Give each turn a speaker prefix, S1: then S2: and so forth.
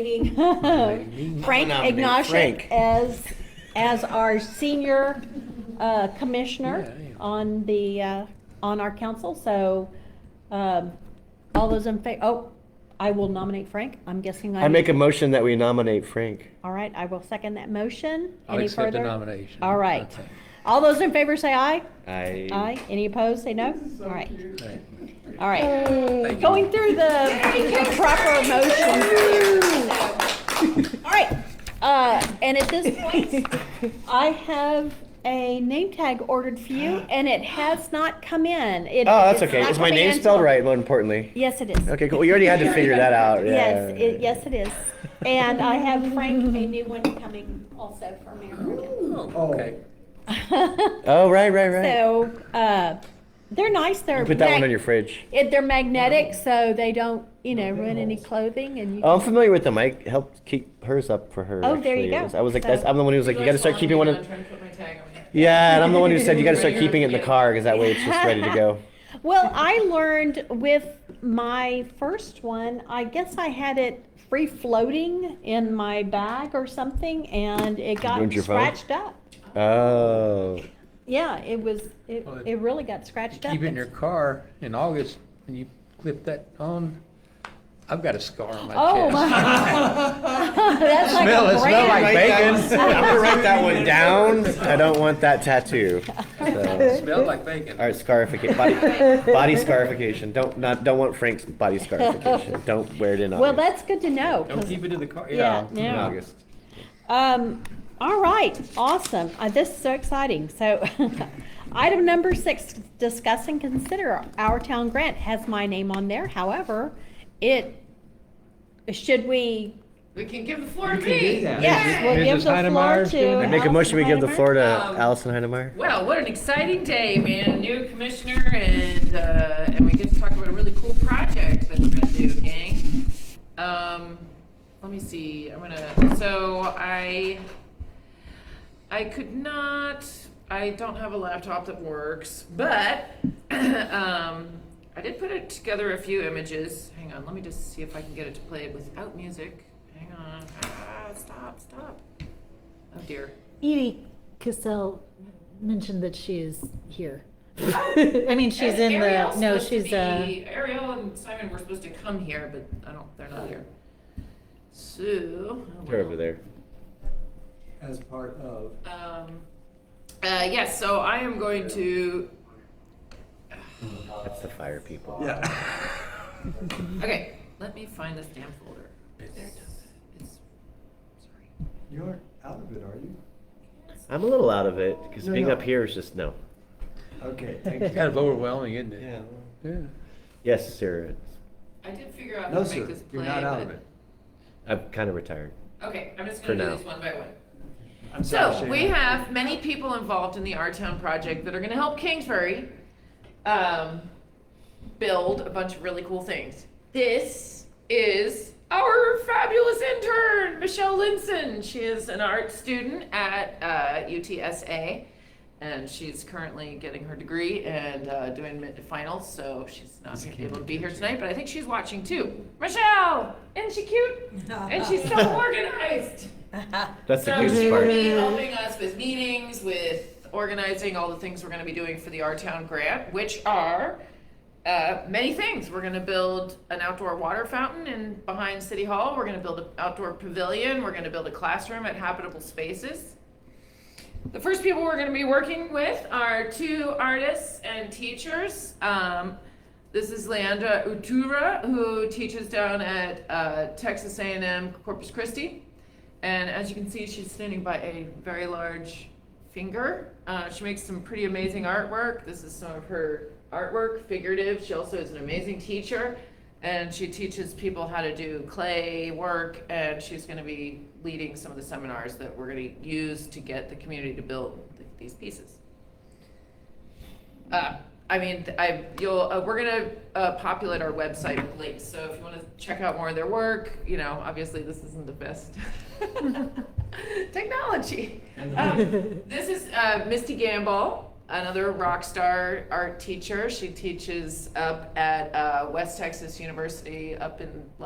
S1: Meeting.
S2: Meeting.
S1: Frank
S2: I nominate
S1: Ignash
S2: Frank.
S1: as, as our senior uh, commissioner
S2: Yeah, yeah.
S1: on the, uh, on our council, so um, all those in favor, oh, I will nominate Frank, I'm guessing I.
S3: I make a motion that we nominate Frank.
S1: All right, I will second that motion.
S2: I'll
S1: Any
S2: accept the
S1: further?
S2: nomination.
S1: All right.
S2: Okay.
S1: All those in favor say aye.
S3: I.
S1: Aye. Any opposed, say no. All right,
S2: Right.
S1: all right.
S2: Thank you.
S1: Going through the the proper motions here. All right, uh, and at this point, I have a name tag ordered for you, and it has not come in. It-
S3: Oh, that's okay.
S1: not
S3: Is my
S1: coming
S3: name
S1: in
S3: spelled
S1: till-
S3: right, more importantly?
S1: Yes, it is.
S3: Okay, cool. We already had to figure that out.
S1: Yes,
S3: yeah.
S1: it, yes, it is. And I have Frank, a new one coming also from American.
S2: Okay.
S3: Oh, right, right, right.
S1: So, uh, they're nice, they're.
S3: You Put that one
S1: mag-
S3: on your fridge.
S1: it- They're magnetic, so they don't, you know, ruin any clothing and you.
S3: Oh, I'm familiar with them. I helped keep hers up for her.
S1: Oh, there you
S3: actually.
S1: go.
S3: It was- I was like,
S1: So-
S3: that's- I'm the one who was like, you got to start keeping one.
S4: I'm
S3: In,
S4: trying to put my tag on it.
S3: yeah, and I'm the one who said you got to start keeping it in the car because that way it's just ready to go.
S1: Well, I learned with my first one, I guess I had it free floating in my bag or something and it got
S3: ruined your phone?
S1: scratched up.
S3: Oh,
S1: Yeah, it was, it,
S2: Well, it-
S1: it really got scratched up.
S2: Keep it in your car in August and you clip that on. I've got a scar on my chest.
S1: Oh, my. That's like
S2: Smell
S1: a
S2: it, smell
S1: brand.
S2: like bacon.
S3: I'm gonna write that one down. I don't want that tattoo. So.
S2: Smelled like bacon.
S3: All right, scarification, body, body scarification. Don't not don't want Frank's body scarification. Don't wear it in.
S1: Well,
S3: August.
S1: that's good to know. 'cause-
S2: Don't keep it in the car,
S1: Yeah,
S2: yeah.
S1: yeah.
S3: in August.
S1: Um, all right, awesome. Uh, this is so exciting. So, item number six, discuss and consider our town grant has my name on there. However, it, should we,
S4: We can give the floor to me.
S1: yes, we'll
S2: Mrs.
S1: give the floor
S2: Heinemeyer's
S1: to.
S2: doing it.
S3: I make a motion we give the
S1: Allison
S3: floor to
S4: Um,
S3: Allison Heinemeier.
S4: Well, what an exciting day, man. New commissioner and, uh, and we get to talk about a really cool project that we're gonna do, gang. Um, let me see, I'm gonna, so I, I could not, I don't have a laptop that works, but, um, I did put it together a few images. Hang on, let me just see if I can get it to play it without music. Hang on, ah, stop, stop. Oh dear.
S5: Edie Cassell mentioned that she is here. I mean, she's in the,
S4: Ariel's
S5: no,
S4: supposed to
S5: she's, uh,
S4: be- Ariel and Simon were supposed to come here, but I don't, they're not here. So. oh,
S3: They're
S4: well.
S3: over there.
S6: as part of.
S4: Um, uh, yes, so I am going to,
S3: That's the fire people.
S6: Yeah.
S4: okay, let me find this damn folder. There it is. It's, sorry.
S6: You aren't out of it, are you?
S3: I'm a little out of it because
S6: No,
S3: being
S6: no.
S3: up here is just no.
S6: Okay, thank you.
S2: Kind of overwhelming, isn't it?
S6: Yeah.
S2: Yeah.
S3: Yes, Sarah.
S4: I did figure out how
S6: No,
S4: to make
S6: sir,
S4: this
S6: you're
S4: play,
S6: not out of
S4: but,
S6: it.
S3: I'm kind of retired.
S4: okay, I'm just
S3: For
S4: gonna do
S3: now.
S4: these one by one.
S6: I'm sorry,
S4: So
S6: Shane.
S4: we have many people involved in the Our Town project that are going to help Kingsbury um, build a bunch of really cool things. This is our fabulous intern, Michelle Linson. She is an art student at uh, UTSA, and she's currently getting her degree and uh, doing mid- finals. So she's not able to be here tonight, but I think she's watching too. Michelle, isn't she cute? and she's so organized.
S3: That's the
S4: So
S3: cutest
S4: she will
S3: part.
S4: be helping us with meetings, with organizing all the things we're gonna be doing for the Our Town grant, which are uh, many things. We're gonna build an outdoor water fountain in, behind City Hall. We're gonna build an outdoor pavilion. We're gonna build a classroom at Habitable Spaces. The first people we're going to be working with are two artists and teachers. Um, this is Leandra Utura, who teaches down at uh, Texas A&M Corpus Christi, and as you can see, she's standing by a very large finger. Uh, she makes some pretty amazing artwork. This is some of her artwork, figurative. She also is an amazing teacher, and she teaches people how to do clay work. And she's going to be leading some of the seminars that we're going to use to get the community to build th- these pieces. Uh, I mean, th- I, you'll, uh, we're gonna, uh, populate our website with links, so if you wanna check out more of their work, you know, obviously this isn't the best technology. Um, This is, uh, Misty Gamble, another rock star art teacher. She teaches up at, uh, West Texas University up in